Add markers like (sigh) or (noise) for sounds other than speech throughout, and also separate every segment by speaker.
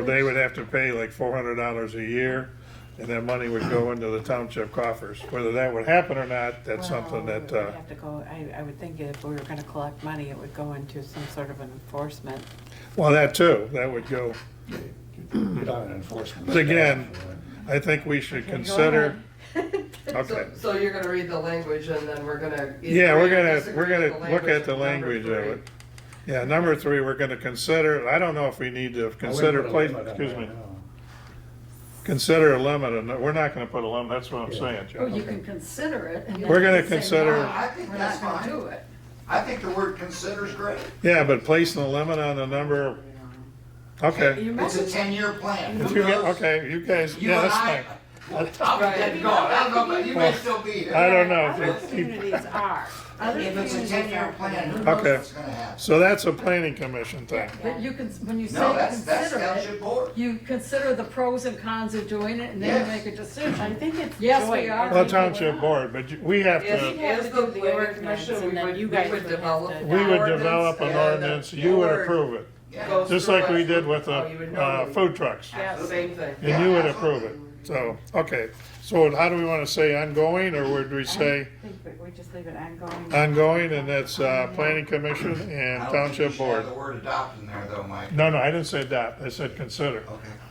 Speaker 1: They would have to pay like four hundred dollars a year, and that money would go into the township coffers. Whether that would happen or not, that's something
Speaker 2: Well,
Speaker 1: that,
Speaker 2: we would
Speaker 1: uh,
Speaker 2: Have to go, I, I would think if we were gonna collect money, it would go into some sort of an enforcement.
Speaker 1: well, that too, that would go.
Speaker 3: You'd have an enforcement.
Speaker 1: But again, I think we should
Speaker 2: Okay, go
Speaker 1: consider,
Speaker 2: ahead.
Speaker 1: (laughs) okay.
Speaker 4: So, so you're gonna read the language and then we're gonna.
Speaker 1: Yeah, we're
Speaker 4: agree or
Speaker 1: gonna,
Speaker 4: disagree
Speaker 1: we're
Speaker 4: with
Speaker 1: gonna look at the language of
Speaker 4: number
Speaker 1: it. Yeah, number three, we're gonna consider, I don't know if we need to consider,
Speaker 3: place.
Speaker 1: pla- excuse me, consider a limit, and we're not gonna put a limit, that's what I'm
Speaker 3: Yeah.
Speaker 1: saying,
Speaker 5: Well,
Speaker 1: John.
Speaker 5: Oh, you can consider it. and
Speaker 1: We're gonna
Speaker 5: then say,
Speaker 1: consider-
Speaker 5: "No,
Speaker 6: I think
Speaker 5: We're
Speaker 6: that's
Speaker 5: not gonna
Speaker 6: fine.
Speaker 5: do it.
Speaker 6: I think the word consider's great.
Speaker 1: Yeah, but placing a limit on the number, okay.
Speaker 2: You
Speaker 6: It's a
Speaker 2: might-
Speaker 6: ten-year plan.
Speaker 1: If
Speaker 6: Who
Speaker 1: you get,
Speaker 6: knows?
Speaker 1: okay, you guys,
Speaker 6: You
Speaker 1: yeah,
Speaker 6: and
Speaker 1: that's
Speaker 6: I-
Speaker 1: fine.
Speaker 6: I'll be dead and gone. I don't know, but you may
Speaker 1: Well,
Speaker 6: still be here.
Speaker 1: I don't know.
Speaker 2: Other
Speaker 1: if you keep-
Speaker 2: communities are. Other
Speaker 6: If it's a
Speaker 2: communities
Speaker 6: ten-year
Speaker 2: are.
Speaker 6: plan, who
Speaker 1: Okay.
Speaker 6: knows what's gonna happen?
Speaker 1: So that's a planning commission thing.
Speaker 5: But you can, when you say
Speaker 6: No, that's, that's
Speaker 5: consider
Speaker 6: township
Speaker 5: it,
Speaker 6: board.
Speaker 5: you consider the pros and cons of doing it and then you
Speaker 6: Yes.
Speaker 5: make a
Speaker 2: I
Speaker 5: decision.
Speaker 2: think it's.
Speaker 5: Yes, we
Speaker 2: joint.
Speaker 5: are.
Speaker 1: Well, township board, but you- we have
Speaker 4: Is,
Speaker 1: to,
Speaker 2: Yeah.
Speaker 4: is the planning commission, we
Speaker 2: And then
Speaker 4: would, we
Speaker 2: you guys would
Speaker 4: would
Speaker 2: have
Speaker 4: develop.
Speaker 2: to-
Speaker 1: we would
Speaker 4: ordinance
Speaker 1: develop an
Speaker 4: and the
Speaker 1: ordinance, you would
Speaker 4: board
Speaker 1: approve it.
Speaker 6: Yeah.
Speaker 4: goes
Speaker 1: Just
Speaker 4: through
Speaker 1: like we
Speaker 4: us.
Speaker 1: did with the,
Speaker 4: Oh, you would know
Speaker 1: uh,
Speaker 4: it would-
Speaker 1: food trucks.
Speaker 2: Yes.
Speaker 4: Same thing.
Speaker 1: And you would approve it. So, okay. So how do we want to say ongoing, or would we say
Speaker 2: I think we- We just leave it
Speaker 1: Uh,
Speaker 2: ongoing.
Speaker 1: ongoing, and that's uh, planning commission
Speaker 6: I
Speaker 1: and
Speaker 6: don't think you
Speaker 1: township
Speaker 6: should have
Speaker 1: board?
Speaker 6: the word adopt in there though, Mike.
Speaker 1: No, no, I didn't say adopt. I said consider.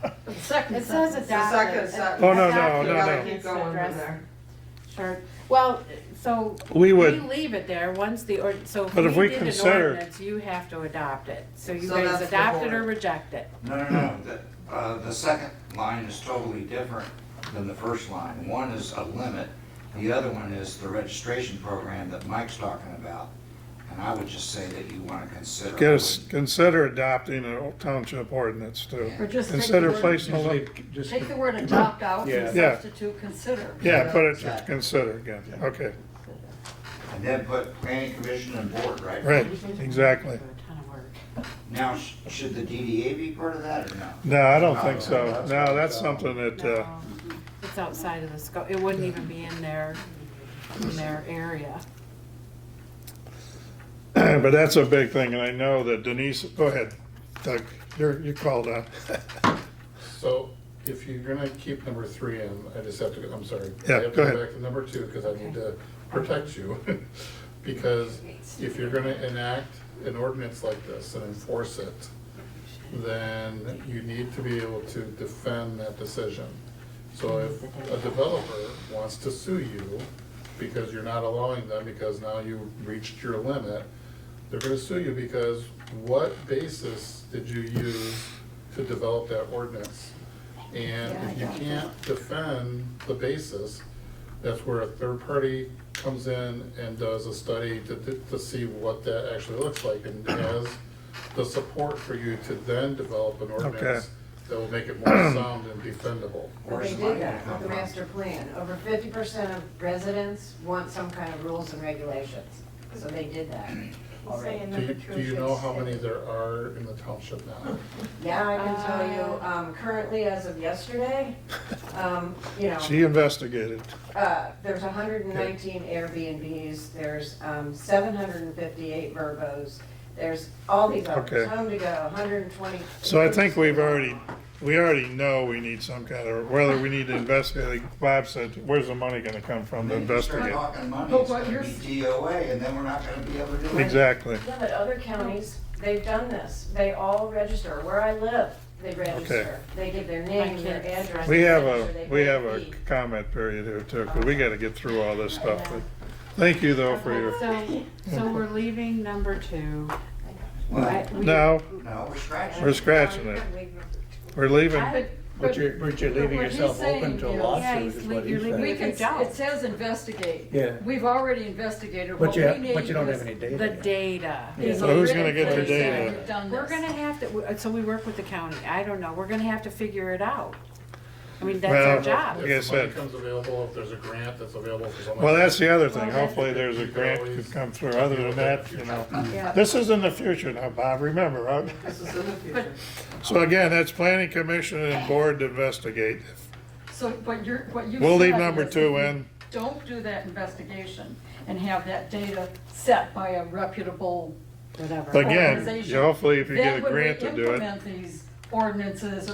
Speaker 6: Okay.
Speaker 5: The second
Speaker 2: It says
Speaker 5: sentence.
Speaker 4: second
Speaker 2: adopted.
Speaker 4: sentence.
Speaker 1: Oh, no, no,
Speaker 2: Adopted
Speaker 1: no, no.
Speaker 2: needs to
Speaker 4: Keep going from
Speaker 2: address-
Speaker 4: there.
Speaker 2: Sure, well, so.
Speaker 1: We would-
Speaker 2: We leave it there, once the, ord- so if
Speaker 1: But if we
Speaker 2: we did an
Speaker 1: consider-
Speaker 2: ordinance, you have to adopt it. So you
Speaker 4: So
Speaker 2: guys
Speaker 4: that's the
Speaker 2: adopt it or
Speaker 4: board.
Speaker 2: reject it.
Speaker 6: No, no, no, the, uh, the second line is totally different than the first line. One is a limit, the other one is the registration program that Mike's talking about. And I would just say that you wanna consider.
Speaker 1: Get us, consider adopting a township ordinance too.
Speaker 5: Or just take the
Speaker 1: Consider
Speaker 5: word,
Speaker 1: placing a limit.
Speaker 3: Just,
Speaker 5: take the word adopt out
Speaker 3: Yeah.
Speaker 5: and
Speaker 1: Yeah.
Speaker 5: substitute consider.
Speaker 1: Yeah, put it to consider again. Okay,
Speaker 6: And then put planning commission and board, right?
Speaker 1: right, exactly.
Speaker 2: Do a ton of work.
Speaker 6: Now, sh- should the DDA be part of that or no?
Speaker 1: No, I don't think so. No, that's something that, uh,
Speaker 2: No, It's outside of the scope, it wouldn't even be in their, in their area.
Speaker 1: uh, (clears throat) but that's a big thing, and I know that Denise, go ahead, Doug, you're, you called (laughs) on.
Speaker 7: So if you're gonna keep number three in, I just have to, I'm sorry.
Speaker 1: Yeah,
Speaker 7: I have to
Speaker 1: go ahead.
Speaker 7: Back to number two, because I need to protect you. Because if you're gonna enact an ordinance like this and enforce it, then you need to be able to defend that decision. So if a developer wants to sue you because you're not allowing them, because now you reached your limit, they're gonna sue you because what basis did you use to develop that ordinance? And if you can't defend the basis, that's where a third party comes in and does a study to, to see what that actually looks like and has the support for you to then develop an ordinance that will make it more sound and defendable.
Speaker 8: But they
Speaker 6: Where's the money
Speaker 8: did that
Speaker 6: gonna
Speaker 8: with the
Speaker 6: come
Speaker 8: master plan. Over fifty percent of residents want some kind of rules and regulations, so they did that already.
Speaker 7: Do you, do you know how many there are in the township now?
Speaker 8: Now I can tell you,
Speaker 4: Ah.
Speaker 8: um, currently as of yesterday, um, you know,
Speaker 1: She investigated.
Speaker 8: uh, there's hundred and nineteen Airbnbs, there's, um, seven hundred and fifty-eight Verbos, there's all these
Speaker 1: Okay.
Speaker 8: others, home to go, hundred and twenty.
Speaker 1: So I think we've already, we already know we need some kind of, whether we need to investigate, like Bob said, where's the money gonna come from to
Speaker 6: Then you start
Speaker 1: investigate?
Speaker 6: talking money,
Speaker 5: But
Speaker 6: it's
Speaker 5: what
Speaker 6: gonna
Speaker 5: you're-
Speaker 6: be DOA, and then we're not gonna be able to do it.
Speaker 1: Exactly.
Speaker 8: Yeah, but other counties, they've done this. They all register. Where I live, they register. They give their name, their
Speaker 2: kids.
Speaker 8: address.
Speaker 1: We
Speaker 8: they
Speaker 1: have
Speaker 8: register,
Speaker 1: a,
Speaker 8: they
Speaker 1: we
Speaker 8: pay
Speaker 1: have
Speaker 8: a
Speaker 1: a
Speaker 8: fee.
Speaker 1: comment period here too, 'cause we gotta get through all this stuff. But Thank you though for your,
Speaker 2: So, so we're leaving number two.
Speaker 6: Well,
Speaker 2: Right? We-
Speaker 1: no,
Speaker 6: no, we're scratching.
Speaker 1: we're scratching it. We're leaving.
Speaker 2: I would-
Speaker 3: but you're, but you're
Speaker 5: But
Speaker 3: leaving
Speaker 5: what he's
Speaker 3: yourself open
Speaker 5: saying
Speaker 3: to a
Speaker 5: is-
Speaker 2: Yeah,
Speaker 3: lawsuit
Speaker 2: he's
Speaker 3: is
Speaker 2: lea-
Speaker 3: what
Speaker 2: you're
Speaker 3: he's
Speaker 2: leaving
Speaker 3: saying.
Speaker 5: We can,
Speaker 2: Don't.
Speaker 5: it says investigate.
Speaker 3: Yeah.
Speaker 5: We've already investigated.
Speaker 3: But
Speaker 5: What
Speaker 3: you
Speaker 5: we
Speaker 3: have- but you
Speaker 5: need
Speaker 3: don't
Speaker 5: is-
Speaker 3: have any data.
Speaker 2: The data.
Speaker 5: is
Speaker 1: So
Speaker 5: a
Speaker 1: who's
Speaker 5: written
Speaker 1: gonna get the
Speaker 5: place saying
Speaker 1: data?
Speaker 5: we've done
Speaker 2: We're
Speaker 5: this.
Speaker 2: gonna have to, so we work with the county, I don't know, we're gonna have to figure it out. I mean,
Speaker 1: Well,
Speaker 2: that's our job.
Speaker 1: yeah.
Speaker 7: If the money
Speaker 1: said-
Speaker 7: comes available, if there's a grant that's available for someone.
Speaker 1: Well, that's the other thing. Hopefully, there's a grant could come through. Other than that, you know, this is in the future now, Bob, remember, right?
Speaker 4: This is in the future.
Speaker 1: So again, that's planning commission and board to investigate.
Speaker 5: So, but you're, what you said.
Speaker 1: We'll leave number
Speaker 5: is
Speaker 1: two
Speaker 5: if you
Speaker 1: in.
Speaker 5: Don't do that investigation and have that data set by a reputable
Speaker 2: Whatever.
Speaker 1: Again,
Speaker 5: organization.
Speaker 1: hopefully if you
Speaker 5: Then
Speaker 1: get a
Speaker 5: when we
Speaker 1: grant to do it.
Speaker 5: implement these ordinances